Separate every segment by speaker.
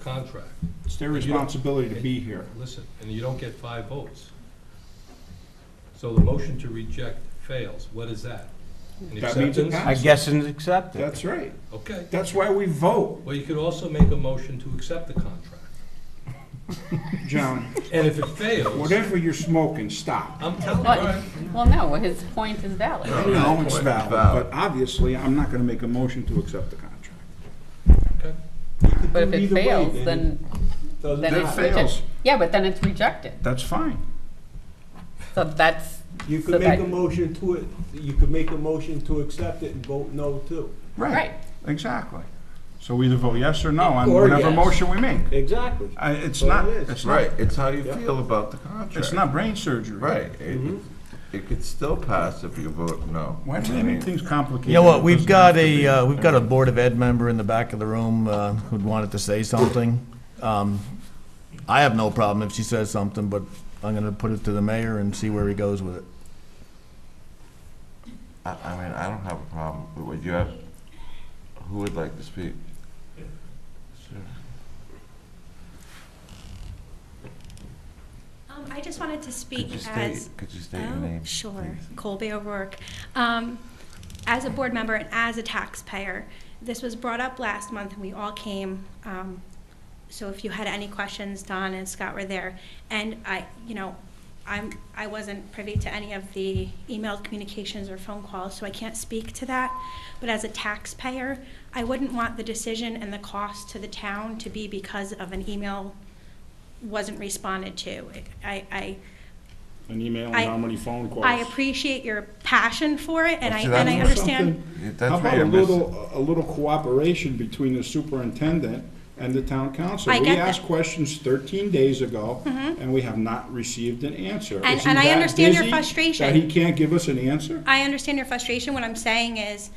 Speaker 1: contract.
Speaker 2: It's their responsibility to be here.
Speaker 1: Listen, and you don't get five votes. So the motion to reject fails. What is that? An
Speaker 2: That means it
Speaker 1: acceptance?
Speaker 2: passed.
Speaker 3: I guess it's accepted.
Speaker 2: That's right.
Speaker 1: Okay.
Speaker 2: That's why we vote,
Speaker 1: Well, you could also make a motion to accept the contract.
Speaker 2: John.
Speaker 1: And if it fails,
Speaker 2: Whatever you're smoking, stop.
Speaker 1: I'm telling you, all
Speaker 4: But,
Speaker 1: right,
Speaker 4: well, no, his point is valid.
Speaker 2: I know it's
Speaker 5: Point
Speaker 2: valid,
Speaker 5: valid.
Speaker 2: but obviously, I'm not gonna make a motion to accept the contract.
Speaker 1: okay.
Speaker 4: But if it
Speaker 2: Either way,
Speaker 4: fails,
Speaker 2: then
Speaker 4: then, then
Speaker 2: That
Speaker 4: it's rejected.
Speaker 2: fails.
Speaker 4: Yeah, but then it's rejected.
Speaker 2: That's fine.
Speaker 4: So that's,
Speaker 6: You
Speaker 4: So
Speaker 6: could make a
Speaker 4: that-
Speaker 6: motion to it, you could make a motion to accept it and vote no too.
Speaker 4: Right.
Speaker 2: Exactly. So either vote yes or no on
Speaker 6: Or
Speaker 2: whatever
Speaker 6: yes.
Speaker 2: motion we make.
Speaker 6: Exactly.
Speaker 2: I- It's
Speaker 6: Well,
Speaker 2: not,
Speaker 6: it is.
Speaker 2: it's not,
Speaker 5: Right, it's how you
Speaker 6: Yeah.
Speaker 5: feel about the contract.
Speaker 2: it's not brain surgery.
Speaker 5: Right, it, it could still pass if you vote no.
Speaker 2: Why do
Speaker 5: I
Speaker 2: you
Speaker 5: mean,
Speaker 2: make things complicated?
Speaker 7: You know what,
Speaker 2: It
Speaker 7: we've
Speaker 2: doesn't
Speaker 7: got
Speaker 2: have to be.
Speaker 7: a, uh, we've got a Board of Ed member in the back of the room uh, who'd wanted to say something. Um, I have no problem if she says something, but I'm going to put it to the mayor and see where he goes with it.
Speaker 5: I, I mean, I don't have a problem, but would you have, who would like to speak?
Speaker 8: Um, I just wanted to speak
Speaker 5: Could you state,
Speaker 8: as.
Speaker 5: could you state your
Speaker 8: Oh,
Speaker 5: name?
Speaker 8: Sure,
Speaker 5: please?
Speaker 8: Colby O'Rourke. Um, as a board member and as a taxpayer, this was brought up last month and we all came. Um, so if you had any questions, Don and Scott were there. And I, you know, I'm, I wasn't privy to any of the emailed communications or phone calls, so I can't speak to that. But as a taxpayer, I wouldn't want the decision and the cost to the town to be because of an email wasn't responded to. I, I,
Speaker 2: An email and
Speaker 8: I-
Speaker 2: how many phone calls?
Speaker 8: I appreciate your passion for it, and I,
Speaker 5: See, that's
Speaker 8: and I
Speaker 5: what-
Speaker 8: understand.
Speaker 5: Yeah,
Speaker 2: How
Speaker 5: That's
Speaker 2: about
Speaker 5: where
Speaker 2: a
Speaker 5: you're missing.
Speaker 2: little, a little cooperation between the superintendent and the town council?
Speaker 8: I get
Speaker 2: We
Speaker 8: that. Mm-hmm.
Speaker 2: asked questions thirteen days ago, and we have not received an answer.
Speaker 8: And-
Speaker 2: Is he
Speaker 8: and I
Speaker 2: that
Speaker 8: understand your
Speaker 2: busy
Speaker 8: frustration.
Speaker 2: That he can't give us an answer?
Speaker 8: I understand your frustration. What I'm saying is,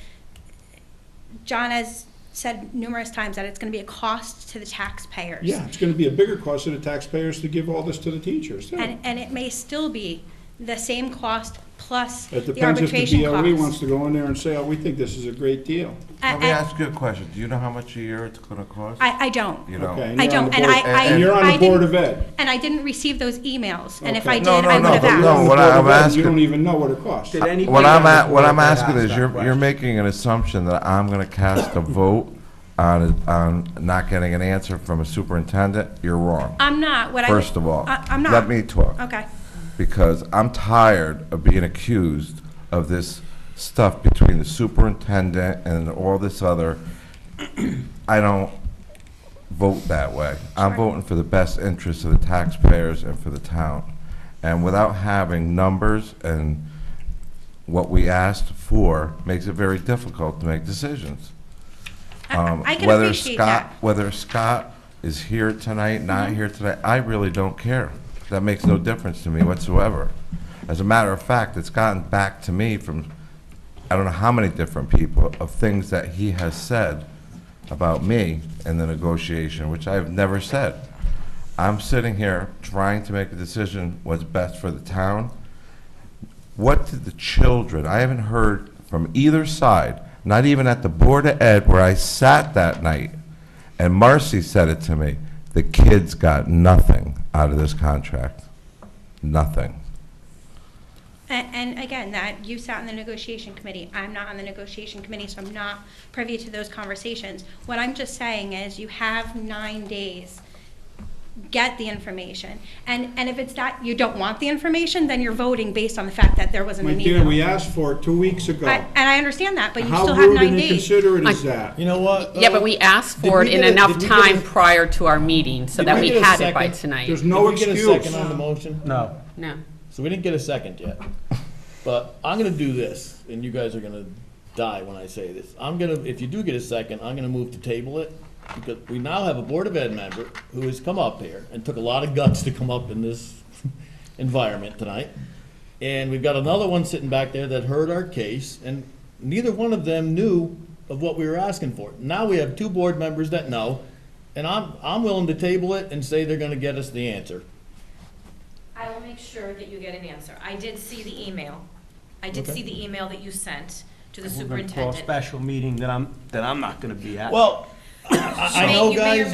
Speaker 8: John has said numerous times that it's gonna be a cost to the taxpayers.
Speaker 2: Yeah, it's gonna be a bigger cost to the taxpayers to give all this to the teachers, too.
Speaker 8: And, and it may still be the same cost plus
Speaker 2: It
Speaker 8: the
Speaker 2: depends if
Speaker 8: arbitration
Speaker 2: the BOE wants
Speaker 8: cost.
Speaker 2: to go in there and say, oh, we think this is a great deal.
Speaker 8: A-
Speaker 5: Let me
Speaker 8: a-
Speaker 5: ask you a question, do you know how much a year it's gonna cost?
Speaker 8: I, I don't,
Speaker 5: You know?
Speaker 2: Okay, and
Speaker 8: I
Speaker 2: you're on
Speaker 8: don't,
Speaker 2: the
Speaker 8: and I,
Speaker 2: board-
Speaker 8: I.
Speaker 2: And you're on
Speaker 8: I
Speaker 2: the Board
Speaker 8: didn't-
Speaker 2: of Ed.
Speaker 8: And I didn't receive those emails, and if
Speaker 2: Okay.
Speaker 8: I did,
Speaker 5: No, no,
Speaker 8: I
Speaker 5: no,
Speaker 8: would have
Speaker 5: but no,
Speaker 8: asked.
Speaker 2: You're on
Speaker 5: what
Speaker 2: the
Speaker 5: I-
Speaker 2: Board
Speaker 5: I'm
Speaker 2: of Ed, You
Speaker 5: asking-
Speaker 2: don't even know what it costs.
Speaker 6: Did anybody
Speaker 5: What I'm
Speaker 6: on the
Speaker 5: at, what
Speaker 6: board
Speaker 5: I'm
Speaker 6: that
Speaker 5: asking
Speaker 6: asked
Speaker 5: is,
Speaker 6: that
Speaker 5: you're, you're
Speaker 6: question?
Speaker 5: making an assumption that I'm gonna cast a vote on, on not getting an answer from a superintendent, you're wrong.
Speaker 8: I'm not, what I. would-
Speaker 5: First of all.
Speaker 8: I, I'm not.
Speaker 5: Let me talk.
Speaker 8: Okay.
Speaker 5: because I'm tired of being accused of this stuff between the superintendent and all this other. I don't vote that way. I'm voting for the best interests of the taxpayers and for the town. And without having numbers and what we asked for makes it very difficult to make decisions.
Speaker 8: I-
Speaker 5: Um,
Speaker 8: I can
Speaker 5: whether
Speaker 8: appreciate
Speaker 5: Scott-
Speaker 8: that. Mm-hmm.
Speaker 5: Whether Scott is here tonight, not here tonight, I really don't care. That makes no difference to me whatsoever. As a matter of fact, it's gotten back to me from, I don't know how many different people, of things that he has said about me in the negotiation, which I have never said. I'm sitting here trying to make a decision what's best for the town, what did the children, I haven't heard from either side, not even at the Board of Ed where I sat that night, and Marcy said it to me, the kids got nothing out of this contract. Nothing.
Speaker 8: And, and again, that, you sat on the negotiation committee, I'm not on the negotiation committee, so I'm not privy to those conversations. What I'm just saying is, you have nine days, get the information. And, and if it's that, you don't want the information, then you're voting based on the fact that there wasn't
Speaker 2: My
Speaker 8: an
Speaker 2: dear, we
Speaker 8: email.
Speaker 2: asked for it two weeks ago.
Speaker 8: I- And I understand that, but you
Speaker 2: How
Speaker 8: still have
Speaker 2: rude
Speaker 8: nine
Speaker 2: and
Speaker 8: days.
Speaker 2: inconsiderate is that?
Speaker 3: You know what? uh,
Speaker 4: Yeah, but we asked
Speaker 3: Did
Speaker 4: for
Speaker 3: we
Speaker 4: it in
Speaker 3: get a-
Speaker 4: enough
Speaker 3: did we get a-
Speaker 4: time prior to our meeting so
Speaker 3: Did
Speaker 4: that
Speaker 3: we
Speaker 4: we
Speaker 3: get a
Speaker 4: had it by
Speaker 3: second?
Speaker 4: tonight.
Speaker 2: There's no
Speaker 3: Did we
Speaker 2: excuse.
Speaker 3: get a second on the motion?
Speaker 6: No.
Speaker 4: No.
Speaker 3: So we didn't get a second yet. But I'm gonna do this, and you guys are gonna die when I say this. I'm gonna, if you do get a second, I'm gonna move to table it, because we now have a Board of Ed member who has come up here and took a lot of guts to come up in this environment tonight. And we've got another one sitting back there that heard our case, and neither one of them knew of what we were asking for. Now we have two board members that know, and I'm, I'm willing to table it and say they're gonna get us the answer.
Speaker 9: I will make sure that you get an answer. I did see the email. I did see the email that you sent to the
Speaker 6: We're gonna call a
Speaker 9: superintendent.
Speaker 6: special meeting that I'm, that I'm not gonna be at.
Speaker 3: Well, I I know,
Speaker 9: You may or
Speaker 3: guys.
Speaker 9: may